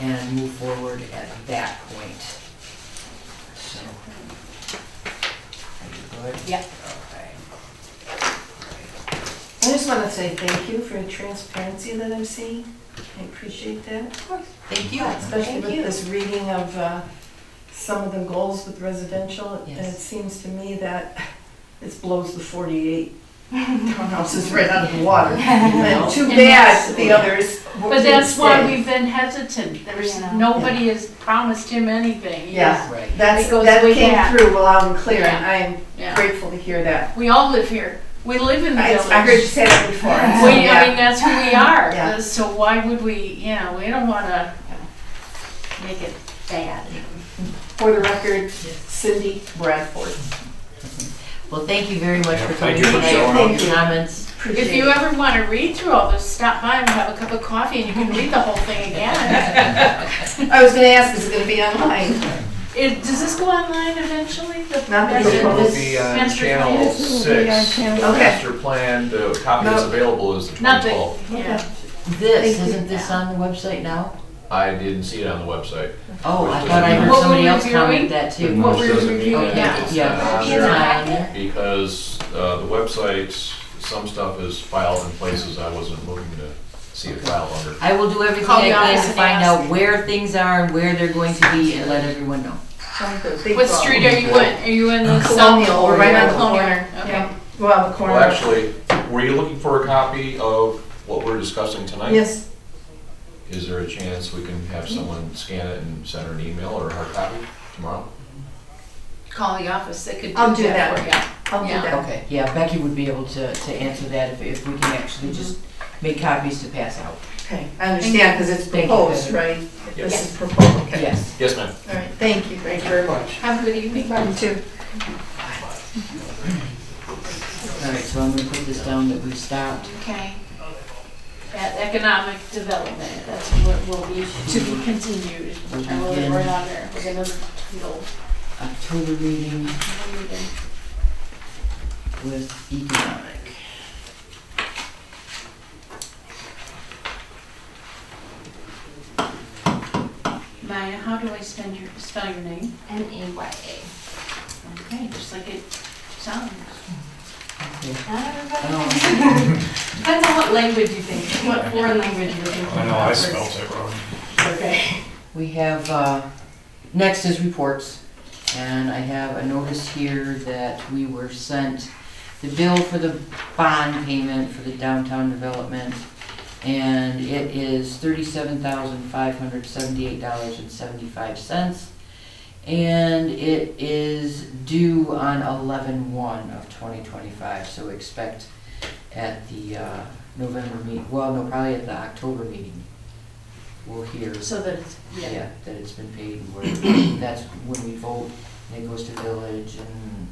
and move forward at that point. So. Are you good? Yep. Okay. I just want to say thank you for the transparency that I'm seeing. I appreciate that, Thank you. especially Thank with you. this reading of uh, some of the goals with residential. And it Yes. seems to me that it blows the 48 townhouses right out of the water. And Too And bad that the that's- others. were- But that's why didn't we've been hesitant, there's, Yeah. nobody has promised him anything. He Yeah. is- Right. stay. That's, it goes that way came back. through loud and clear, and Yeah. I am Yeah, grateful to hear that. we all live here, we live in the I I heard you village. say that before. and so, We, I yeah. mean, that's who we Yeah. are, so why would we, you know, we don't wanna make it bad. For the record, Cindy Bradford. Well, thank you very much Yeah, for coming thank you for tonight, showing for all up. your comments. If you ever wanna read through all this, stop by and have a cup of coffee and you can read the whole thing again. I was gonna ask, is it gonna be online? It, does this go online eventually? The- Not that that's it's it, It'll this be on master plan? channel six, the Okay. master plan, the copy that's available is the twenty Nothing, twelve. yeah. This, Thank you. isn't this on the website now? I didn't see it on the website. Oh, I Which thought I doesn't- heard What somebody we're else comment reviewing? that But too. What This we're doesn't mean reviewing that now. it's not Yeah, on it's there, not on there. Because, uh, the website, some stuff is filed in places I wasn't looking to see it filed under. I will do everything Call I the can office to and find ask. out where things are and where they're going to be and let everyone know. What street are you in? Are you in the Colonial, South we're or right right on on the Colonial? corner. Okay. Yeah. Well, the corner. Well, actually, were you looking for a copy of what we're discussing tonight? Yes, Is there a chance we can have someone scan it and send her an email or a hard copy tomorrow? Call the office, they could do that. I'll do that. for you. I'll do Yeah. that. Okay, yeah, Becky would be able to, to answer that if, if we can actually just make copies to pass out. Okay, I understand, because it's Thank you. proposed, right? This is proposed, okay. Yes. Yes, ma'am. All right, thank you, thank you very much. Have a good evening. You too. Mm-hmm. All right, so I'm gonna put this down that we stopped. Okay. At economic development, that's what will be to be continued. I will Again. we're on there. We're gonna, we'll, October reading we'll read it. with economic. Maya, how do I spend your, spell your name? N A Y A. Okay, just like it sounds. Okay. Not everybody. Um, Depends on what language you think, what foreign language you're thinking. I know, I spelled it wrong. Okay. We have, uh, next is reports, and I have a notice here that we were sent the bill for the bond payment for the downtown development, and it is thirty-seven thousand five hundred seventy-eight dollars and seventy-five cents, and it is due on eleven-one of twenty twenty-five, so expect at the, uh, November meet, well, no, probably at the October meeting, we'll hear. So that it's, yeah. Yeah, that it's been paid, and where, that's when we vote, and it goes to village and,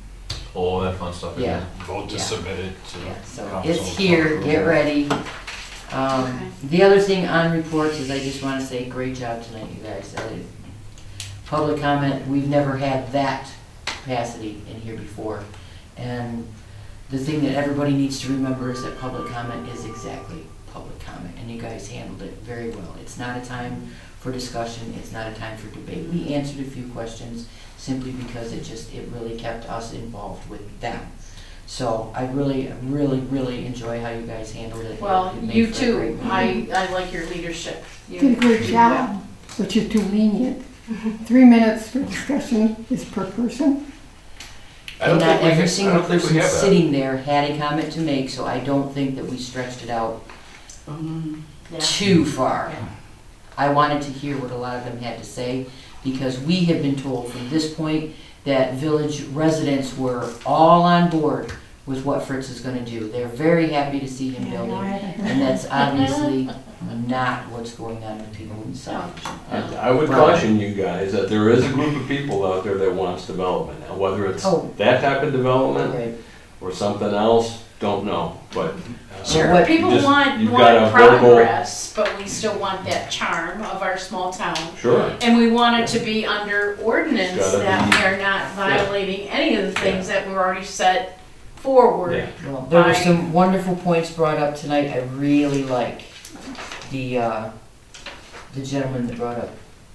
All that fun stuff in there. yeah, Vote to Yeah. submit it yeah, to. so council it's here, for get approval. ready. Okay. Um, the other thing on reports is I just wanna say, great job tonight, you guys, I did- public comment, we've never had that capacity in here before. And the thing that everybody needs to remember is that public comment is exactly public comment, and you guys handled it very well. It's not a time for discussion, it's not a time for debate. We answered a few questions simply because it just, it really kept us involved with them. So I really, really, really enjoy how you guys handled it. Well, It made you for a great too. meeting. I, I like your leadership. You Did a great do well. job, but you're too lenient. Three minutes for discussion is per person. I don't And not think we every ha- I single don't think we person have that. sitting there had a comment to make, so I don't think that we stretched it out Mm-hmm. Yeah. too far. Yeah. I wanted to hear what a lot of them had to say, because we have been told from this point that village residents were all on board with what Fritz is gonna do. They're very happy to see him building, and that's obviously not what's going on with people inside. And I would caution you guys that there is a group of people out there that wants development. Now, whether it's Oh. that type of development Right. or something else, don't know, but. uh, So what- People Just- want you've more got a verbal- progress, but we still want that charm of our small town. Sure, And we want it to be under ordinance It's gotta that be- we are not violating any of the things that were already set forward. Yeah. Well, there were I- some wonderful points brought up tonight I really liked. The, uh, the gentleman that brought up